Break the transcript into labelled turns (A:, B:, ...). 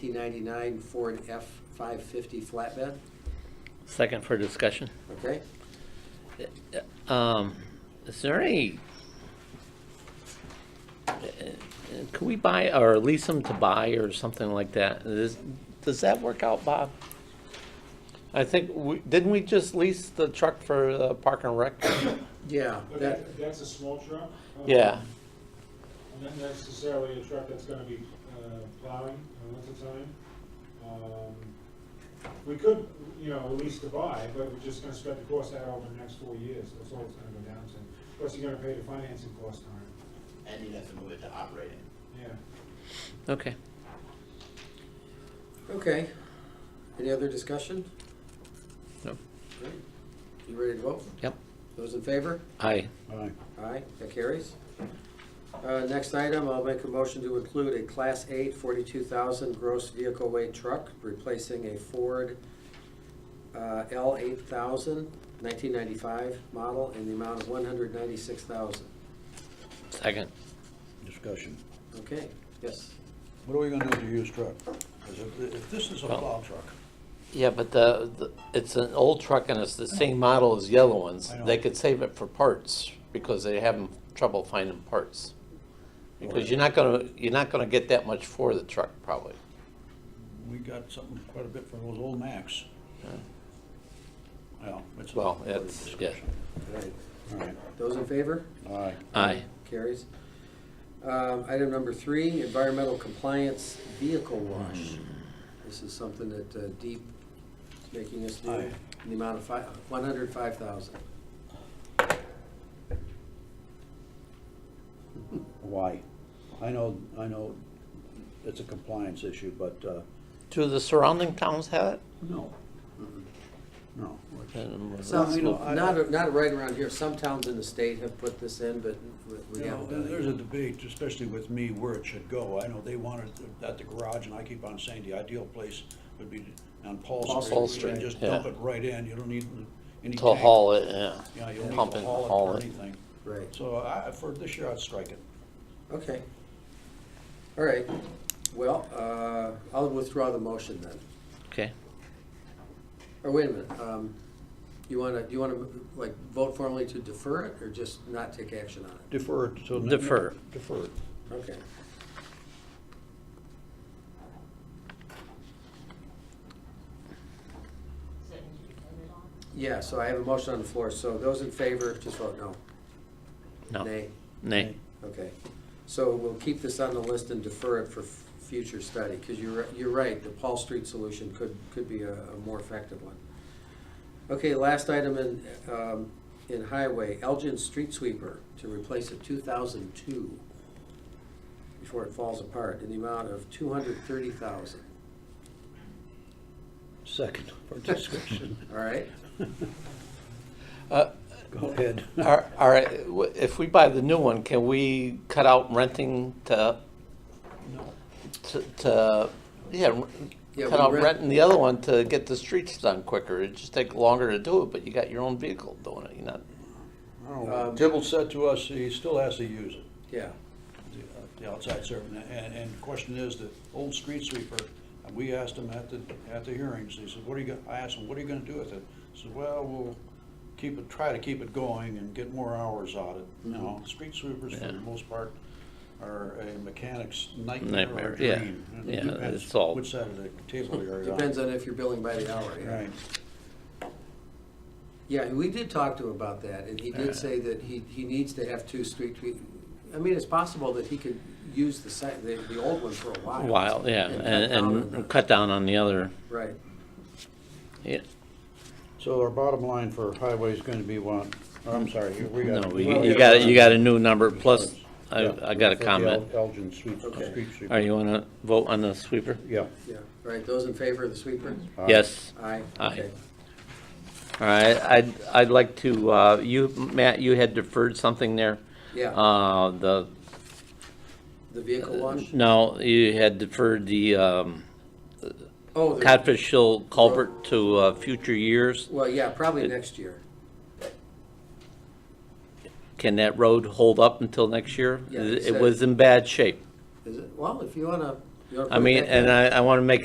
A: 1999 Ford F-550 flatbed,
B: Second for discussion.
A: okay?
B: Um, is there any? Uh, Could we buy or lease them to buy or something like that? Does, does that work out, Bob? I think, we didn't we just lease the truck for the park and rec?
A: Yeah, that,
C: But that, that's a small truck. uh,
B: Yeah,
C: Not necessarily a truck that's gonna be uh, plowing in winter time. Um, We could, you know, lease to buy, but we're just gonna spread the cost out over the next four years, that's all it's gonna go down to. Plus, you're gonna pay the financing cost on it,
D: and you'd have to move it to operating.
C: yeah.
B: okay.
A: okay. Any other discussion?
B: No.
A: All right. You ready to vote?
B: Yep,
A: Those in favor?
B: aye.
A: Aye, that carries. Uh, Next item, I'll make a motion to include a Class 8 42,000 gross vehicle weight truck replacing a Ford uh, L8000 1995 model in the amount of 196,000.
B: Second,
E: discussion.
A: Okay, yes.
E: What are we gonna do with the used truck? 'Cause if, if this is a plow truck,
B: yeah, but the, the- it's an old truck and it's the same model as yellow ones.
E: I know.
B: They could save it for parts because they having trouble finding parts. Because you're not gonna, you're not gonna get that much for the truck probably.
E: we got something quite a bit for those old Macs. Well, it's.
B: Well, it's, yeah,
A: All right.
E: All right,
A: Those in favor?
E: all right.
B: aye.
A: Carries. Um, Item number three, environmental compliance vehicle wash. This is something that uh, Deep making us do
E: Aye.
A: in the amount of fi- 105,000.
E: Why? I know, I know it's a compliance issue, but, uh,
B: Do the surrounding towns have it?
E: no. No.
B: Then was
A: Some,
B: it-
E: you know, I-
A: not, not right around here, some towns in the state have put this in, but we- we
E: You know,
A: haven't done
E: there's
A: it.
E: a
A: yet.
E: debate, especially with me, where it should go. I know they wanted it at the garage, and I keep on saying the ideal place would be on Paul Street.
B: Paul
E: where you can
B: Street,
E: Just dump
B: yeah.
E: it right in, you don't need any.
B: To
E: tank.
B: haul it, yeah.
E: Yeah, you don't need
B: Pump
E: to
B: it,
E: haul it or anything.
A: Right,
E: So I, for this year, I'd strike it.
A: okay. All right, well, uh, I'll withdraw the motion then.
B: Okay,
A: Or wait a minute, um, you wanna, do you wanna, like, vote formally to defer it, or just not take action on it?
E: Defer it till. ne-
B: Defer.
E: Defer it.
A: Okay, yeah, so I have a motion on the floor, so those in favor, just vote no.
B: no,
A: Nay,
B: nay,
A: okay. So we'll keep this on the list and defer it for f- future study, because you're, you're right, the Paul Street solution could, could be a, a more effective one. Okay, last item in, um, in highway, Elgin Street Sweeper to replace a two thousand two before it falls apart in the amount of two hundred thirty thousand,
E: Second for discussion.
A: all right?
E: Go ahead.
B: All all right, w- if we buy the new one, can we cut out renting to,
E: No.
B: to- to, yeah, r-
A: Yeah,
B: cut
A: we
B: out
A: rent-
B: renting the other one to get the streets done quicker? It'd just take longer to do it, but you got your own vehicle doing it, you know?
E: I don't know.
A: Um,
E: Tibble Uh, said to us, he still has to use it.
A: Yeah,
E: the- uh, the outside serving, and, and the question is, the old street sweeper, and we asked him at the, at the hearings, he said, what are you, gonna?" I asked him, what are you gonna do with it? He said, well, we'll keep it, try to keep it going and get more hours out of it, you know, street sweepers for the
B: Mm-hmm. Yeah.
E: most part are a mechanic's nightmare or
B: Nightmare, yeah.
E: dream. And it
B: Yeah,
E: depends
B: it's all-
E: Which side of the table you're on.
A: depends on if you're billing by the hour, yeah.
E: Right,
A: Yeah, we did talk to him about that, and he did say that he, he needs to have two street, sweep- I mean, it's possible that he could use the site, the, the old one for a while.
B: While, yeah,
A: cut
B: and,
A: down on the-
B: and cut down on the other,
A: Right,
B: yeah,
E: so our bottom line for highway is gonna be one, oh, I'm sorry, you- we
B: no,
E: got.
B: we-
A: Well,
B: you
A: yeah.
B: got, a- you got a new number, plus, I,
E: Yeah,
B: I got a
E: for the
B: comment.
E: El- Elgin Street,
A: Okay.
E: Street Sweeper.
B: Are you wanna vote on the sweeper?
E: Yeah.
A: yeah, All right, those in favor of the sweeper?
E: Aye.
B: Yes,
A: Aye.
B: Aye.
A: Okay.
B: all right, I'd, I'd like to, uh, you, Matt, you had deferred something there.
A: Yeah,
B: Uh, the,
A: the vehicle wash?
B: no, you had deferred the, um,
A: Oh, the-
B: Codfish Hill culvert to, uh, future years.
A: well, yeah, probably next year,
B: Can that road hold up until next year?
A: Yeah,
B: It
A: it's, uh,
B: was in bad shape.
A: is it? Well, if you wanna, You wanna
B: I
A: put it
B: mean,
A: back
B: and
A: in?
B: I, I want to make